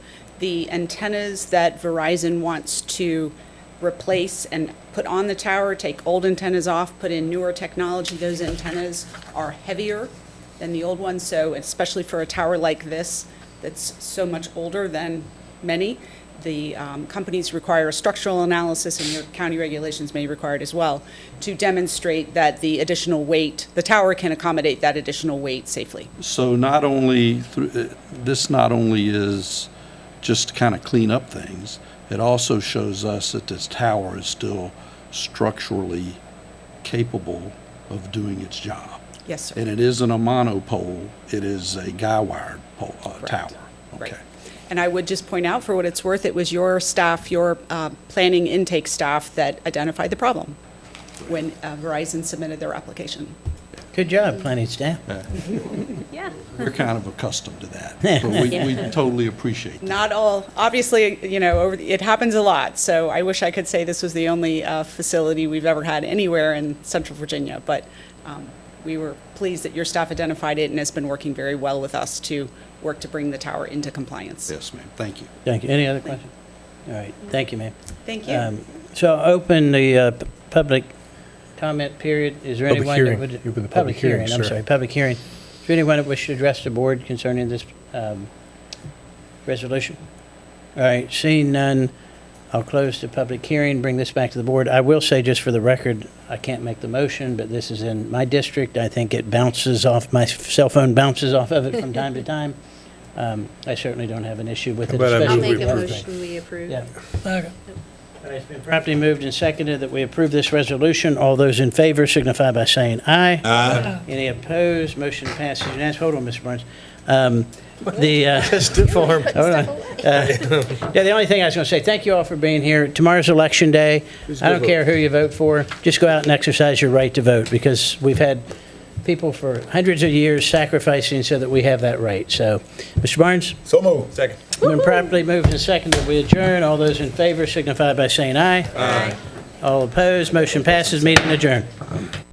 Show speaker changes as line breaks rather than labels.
the antennas that Verizon wants to replace and put on the tower, take old antennas off, put in newer technology, those antennas are heavier than the old ones, so especially for a tower like this that's so much older than many, the um, companies require a structural analysis, and your county regulations may require it as well, to demonstrate that the additional weight, the tower can accommodate that additional weight safely.
So not only, thr- uh, this not only is just to kind of clean up things, it also shows us that this tower is still structurally capable of doing its job.
Yes, sir.
And it isn't a monopole, it is a guy-wired pole, uh, tower.
Correct. Right.
Okay.
And I would just point out, for what it's worth, it was your staff, your uh, planning intake staff that identified the problem when uh, Verizon submitted their application.
Good job, planning staff.
Yeah.
We're kind of accustomed to that, but we, we totally appreciate that.
Not all, obviously, you know, over, the- it happens a lot, so I wish I could say this was the only uh, facility we've ever had anywhere in central Virginia, but um, we were pleased that your staff identified it and has been working very well with us to work to bring the tower into compliance.
Yes, ma'am, thank you.
Thank you. Any other questions? All right, thank you, ma'am.
Thank
Um,
you.
So I'll open the uh, p- public comment period. Is there anyone?
Public
that
hearing.
would-
You open the public hearing,
I'm
sir.
sorry, public hearing. Is there anyone that wishes to address the board concerning this um, resolution? All right, seeing none, I'll close the public hearing, bring this back to the board. I will say, just for the record, I can't make the motion, but this is in my district. I think it bounces off, my cell phone bounces off of it from time to time. Um, I certainly don't have an issue with it.
How about I
especially
I'll
move we
make a
approve
motion, we approve.
yeah. All right, It's been properly moved and seconded that we approve this resolution. All those in favor signify by saying aye. Aye. Any opposed? Motion passes unanimously. Hold on, Mr. Burns. Um, The, uh, hold on. Uh, Yeah, the only thing I was going to say, thank you all for being here. Tomorrow's Election Day. I don't care who you vote for, just go out and exercise your right to vote, because we've had people for hundreds of years sacrificing so that we have that right. So, Mr. Barnes?
So moved. Second.
Been properly moved and seconded, we adjourn. All those in favor signify by saying aye. Aye. All opposed, motion passes, meeting adjourned.